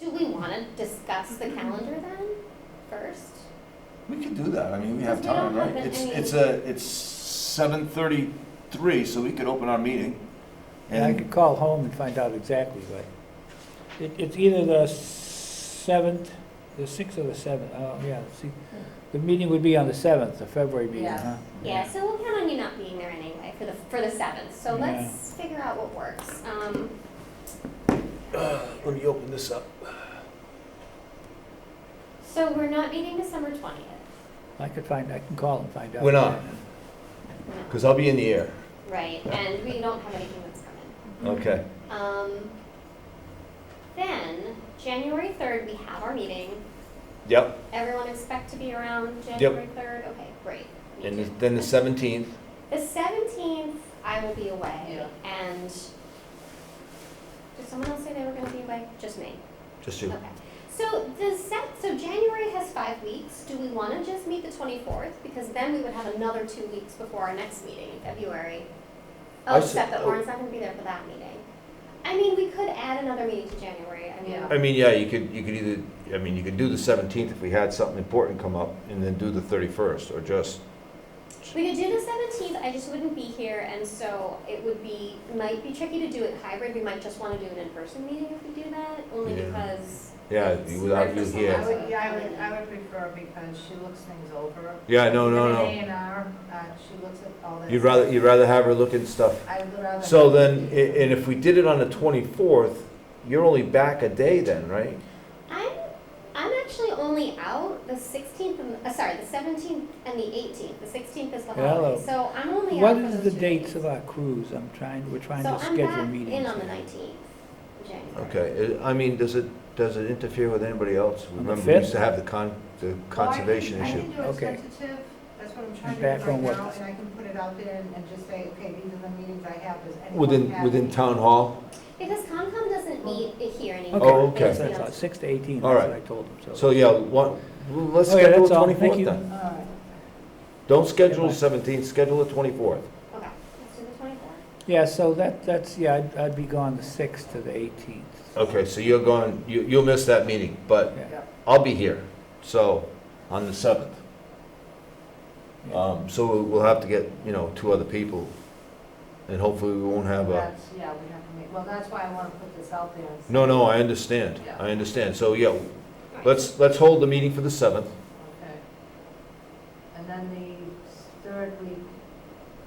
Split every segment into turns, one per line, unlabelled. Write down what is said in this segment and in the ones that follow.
want to discuss the calendar then first?
We could do that, I mean, we have
Because we don't
time, right?
have
It's,
any-
it's a, it's seven thirty-three, so we could open our meeting.
And I could call home and find out exactly, but it, it's either the seventh, the sixth or the seventh, oh, yeah, see, the meeting would be on the seventh, the February meeting,
Yeah.
huh?
Yeah, so we'll count on you not being there anyway for the for the seventh. So
Yeah.
let's figure out what works. Um,
uh, Let me open this up.
so we're not meeting December twentieth.
I could find, I can call and find out.
We're not.
No.
Because I'll be in the air.
Right, and we don't have anything that's coming.
Okay.
Um, then January third, we have our meeting.
Yep.
Everyone expect to be around January third. Okay, great. Me
And
too.
the- then the 17th.
The seventeenth, I will be away, and did someone else say they were gonna be away? Just me.
Just you.
Okay. So the set, so January has five weeks. Do we want to just meet the twenty-fourth? Because then we would have another two weeks before our next meeting in February. Oh,
I
except that
sup-
Lauren's not gonna be there for that meeting. I mean, we could add another meeting to January. I
Yeah.
mean,
I mean, yeah, you could, you could either, I mean, you could do the 17th if we had something important come up, and then do the 31st, or just,
we could do the seventeenth. I just wouldn't be here, and so it would be, might be tricky to do it hybrid. We might just want to do an in-person meeting if we do that, only
Yeah.
because.
yeah,
it's
without
hard for
you
I
here.
someone-
would, yeah, I would, I would prefer because she looks things over.
Yeah, no, no,
The
no.
A and R, uh, she looks at all this.
You'd rather, you'd rather have her look at stuff.
I would rather.
So then, i- and if we did it on the 24th, you're only back a day then, right?
I'm I'm actually only out the 16th and uh, sorry the 17th and the 18th. The 16th is the holiday,
Hello.
so I'm only
What
out. for
is
those
the
two
dates
days.
of our cruise? I'm trying, we're trying
so
to
I'm
schedule
back
meetings.
in on the
now.
19th, of January.
Okay, uh, I I mean, does it, does it interfere with anybody else?
On the
Remember, we used
fifth?
to have the con, the conservation
Well, I
issue.
can- I can do
Okay.
it tentative, that's what I'm trying to do
Back
right
on what?
now, and I can put it out there and, and just say, okay, these are the meetings I have, does anyone
Within,
have
within
any?
town hall?
Because ComCom doesn't meet it here anymore.
Oh,
They
okay.
just meet
That's
on-
all, Six to eighteen, that's
All
what
right.
I told them,
So,
so.
yeah, one, well, let's
Okay,
schedule
Oh, that's
the
all. Thank
twenty-fourth
you.
then.
All right.
Don't schedule
bye.
the seventeenth, schedule the twenty-fourth.
Okay, let's do the 24th.
Yeah, so that, that's, yeah, I'd, I'd be gone the sixth to the eighteenth.
Okay, so you're going, you, you'll miss that meeting, but
Yeah.
I'll be here, so, on the seventh.
Yeah.
Um, so we'll- we'll have to get, you know, two other people, and hopefully we won't have a,
That's, yeah, we have to make, well, that's why I wanna put this out there. and see.
no, no, I understand,
Yeah.
I understand, so, yeah,
All right.
let's, let's hold the meeting for the seventh.
Okay. And then the third week,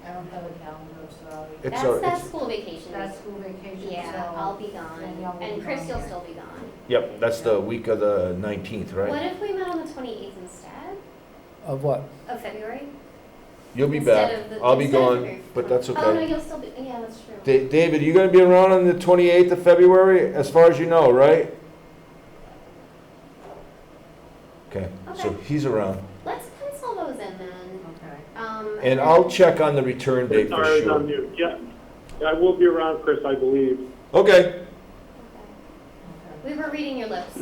I don't have a calendar, sorry.
It's
that's
our-
that
it's-
school vacation.
That's
week.
school vacation, so.
yeah, I'll be
then y'all
gone,
will
and
be
Chris,
gone
you'll
here.
still be gone.
Yep, that's the week of the nineteenth,
What
right?
if we met on the 28th instead
Of what?
of February?
You'll be
Instead
back,
of the-
I'll be
instead of
gone,
February
but that's
20th.
okay.
Oh no, you'll still be. Yeah, that's true.
Da- David, you gonna be around on the twenty-eighth of February, as far as you know, right? Okay, so
Okay.
he's around,
Let's pencil those in then.
Okay.
Um,
and I'll check on the return date for
Sorry, I was on
sure.
mute. Yeah, Yeah, I will be around, Chris, I believe.
Okay,
Okay.
Okay.
We were reading your lips.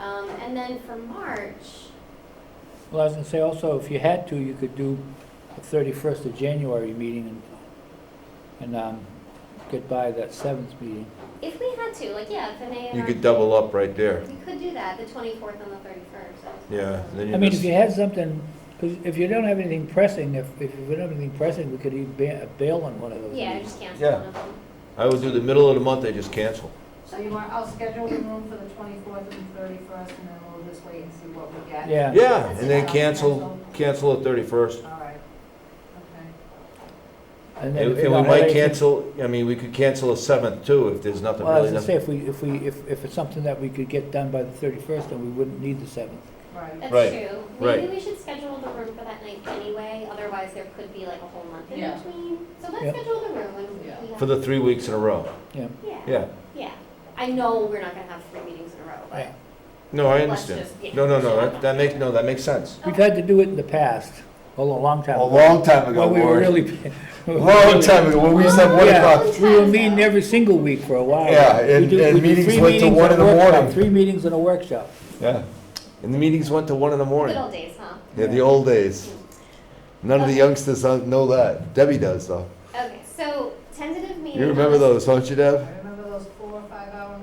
um, and then for March,
Well, I was gonna say also, if you had to, you could do the thirty-first of January meeting and, and, um, get by that seventh meeting.
if we had to, like, yeah, if an A.
you could double up right there,
We could do that, the 24th and the 31st.
yeah, then
I
you
mean, if you
miss.
had something, 'cause if you don't have anything pressing, if, if you don't have anything pressing, we could even ba- uh, bail on one of those
Yeah, I
meetings.
just cancel
Yeah.
one of them.
I would do the middle of the month, they just cancel.
So you want, I'll schedule the room for the twenty-fourth and thirty-first, and then we'll just wait and see what we get.
Yeah.
Yeah, and then cancel, cancel the thirty-first,
All right, okay.
And
and
then
and
if you
we
don't have
might
anything-
cancel, I mean, we could cancel the seventh too, if there's nothing
Well, I was
really,
gonna say,
nothing.
if we, if we, if, if it's something that we could get done by the thirty-first, then we wouldn't need the seventh.
Right.
That's
Right,
true. Maybe
right.
we should schedule the room for that night anyway, otherwise there could be like a whole month in
Yeah.
between. So let's
Yep.
schedule the room. and we
Yeah.
have-
for the three weeks in a row,
yeah.
yeah.
Yeah. I know we're not going to have three meetings in a row, but.
Right.
No, I
Let's
understand.
just- yeah.
No, no, no, that, that makes, no, that makes sense.
We've had to do it in the past, a lo- long time
A
ago.
long time ago,
When we were
Warren.
really.
Long time ago, when we used to have one
Yeah.
o'clock.
We were meeting every single week for a while.
Yeah,
We
and-
do-
and
we do
meetings
three
went to
meetings
one
and
in the
a workshop,
morning.
Three meetings and a workshop.
Yeah. And the meetings went to one in the
Good
morning.
old days, huh?
Yeah, the old days. None of the youngsters don't know that. Debbie does though.
Okay, so tentative meeting.
You remember
on the-
those, don't you, Deb?
I remember those four or five hour